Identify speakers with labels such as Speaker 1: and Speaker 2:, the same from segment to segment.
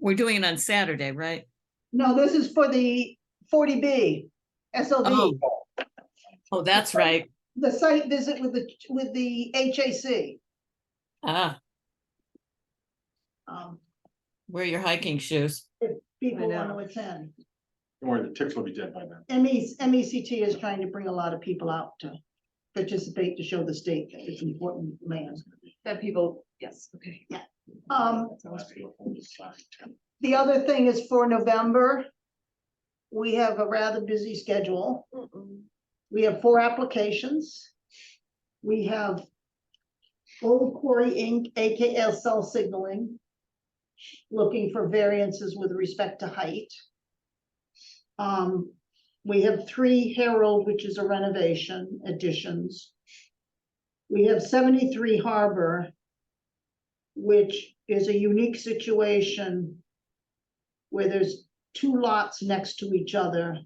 Speaker 1: We're doing it on Saturday, right?
Speaker 2: No, this is for the forty B,
Speaker 1: Oh.
Speaker 2: SLB,
Speaker 1: Oh, that's right.
Speaker 2: the site visit with the, with the HAC.
Speaker 1: Ah,
Speaker 2: Um,
Speaker 1: wear your hiking shoes.
Speaker 2: people
Speaker 1: I
Speaker 2: want
Speaker 1: know.
Speaker 2: to attend. E,
Speaker 3: Don't worry, the ticks will be dead by then.
Speaker 2: MEC, MECT is trying to bring a lot of people out to participate to show the state that it's important land.
Speaker 4: That people, yes, okay.
Speaker 2: Um,
Speaker 3: That's the last people on this side.
Speaker 2: The other thing is for November. We have a rather busy schedule. We have four applications. We have Old Quarry Inc., AKA Cell Signaling, looking for variances with respect to height. Um, we have Three Herald, which is a renovation additions. We have seventy-three Harbor, which is a unique situation where there's two lots next to each other.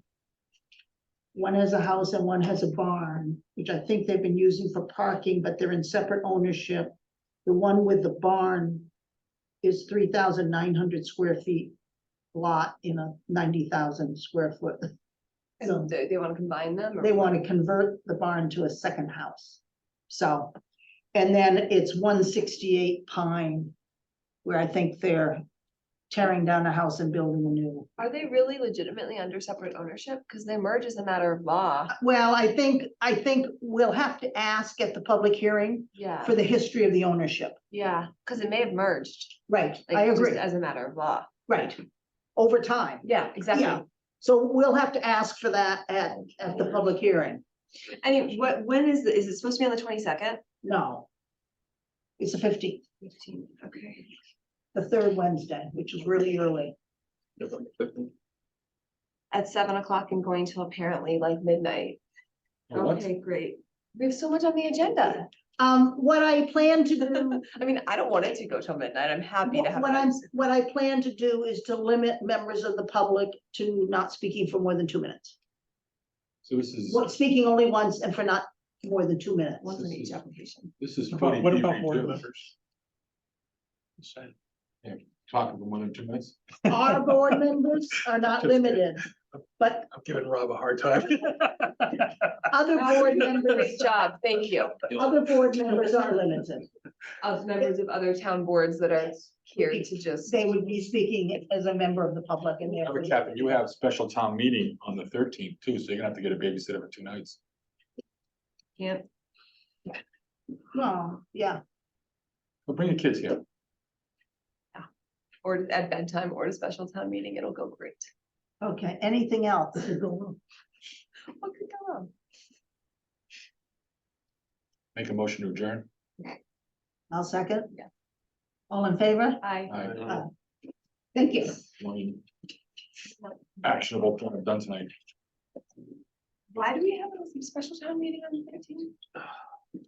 Speaker 2: One has a house and one has a barn, which I think they've been using for parking, but they're in separate ownership. The one with the barn is three thousand nine hundred square feet lot in a ninety thousand square foot. So
Speaker 4: And they, they wanna combine them? or-
Speaker 2: they want to convert the barn to a second house. So, and then it's one sixty-eight Pine, where I think they're tearing down a house and building a new.
Speaker 4: Are they really legitimately under separate ownership? Cause they merge as a matter of law,
Speaker 2: Well, I think, I think we'll have to ask at the public hearing
Speaker 4: yeah,
Speaker 2: for the history of the ownership.
Speaker 4: yeah, cause it may have merged.
Speaker 2: Right, I
Speaker 4: like, just
Speaker 2: agree,
Speaker 4: As a matter of law,
Speaker 2: right, over time.
Speaker 4: yeah,
Speaker 2: Yeah.
Speaker 4: exactly.
Speaker 2: So we'll have to ask for that at, at the public hearing.
Speaker 4: I mean, what, when is, the- is it supposed to be on the twenty-second?
Speaker 2: No. It's the fifteenth,
Speaker 4: Fifteen, okay.
Speaker 2: the third Wednesday, which is really early.
Speaker 3: November 15th.
Speaker 4: At seven o'clock and going till apparently like midnight.
Speaker 3: Or what?
Speaker 4: Okay, great. We have so much on the agenda.
Speaker 2: Um, what I plan to do,
Speaker 4: I mean, I don't want it to go till midnight. I'm happy to have.
Speaker 2: what
Speaker 4: it.
Speaker 2: I'm, what I plan to do is to limit members of the public to not speaking for more than two minutes.
Speaker 3: So this is,
Speaker 2: Well, Speaking only once and for not more than two minutes.
Speaker 4: Once in each application.
Speaker 3: this is.
Speaker 5: About- What
Speaker 3: 40
Speaker 5: about board
Speaker 3: review.
Speaker 5: members? Say,
Speaker 3: Talking for more than two minutes.
Speaker 2: Our board members are not
Speaker 5: Just kidding.
Speaker 2: limited, but
Speaker 5: I'm giving Rob a hard time.
Speaker 2: other board members,
Speaker 4: Great job, thank you.
Speaker 2: other board members are limited.
Speaker 4: Of members of other town boards that are here to just.
Speaker 2: They would be speaking as a member of the public and
Speaker 3: Remember,
Speaker 2: they're.
Speaker 3: Catherine, you have special town meeting on the thirteenth too, so you're gonna have to get a babysitter for two nights.
Speaker 4: Yeah.
Speaker 2: No, Oh, yeah,
Speaker 3: But bring your kids here.
Speaker 4: Or at bedtime or at a special town meeting, it'll go great.
Speaker 2: okay, anything else? Oh,
Speaker 4: What could go wrong?
Speaker 3: Make a motion to adjourn.
Speaker 2: I'll second.
Speaker 4: Yeah.
Speaker 2: All in favor?
Speaker 4: I.
Speaker 3: All right.
Speaker 2: Uh, Thank you.
Speaker 3: One Actionable plan done tonight.
Speaker 4: Why do we have a special town meeting on the thirteenth?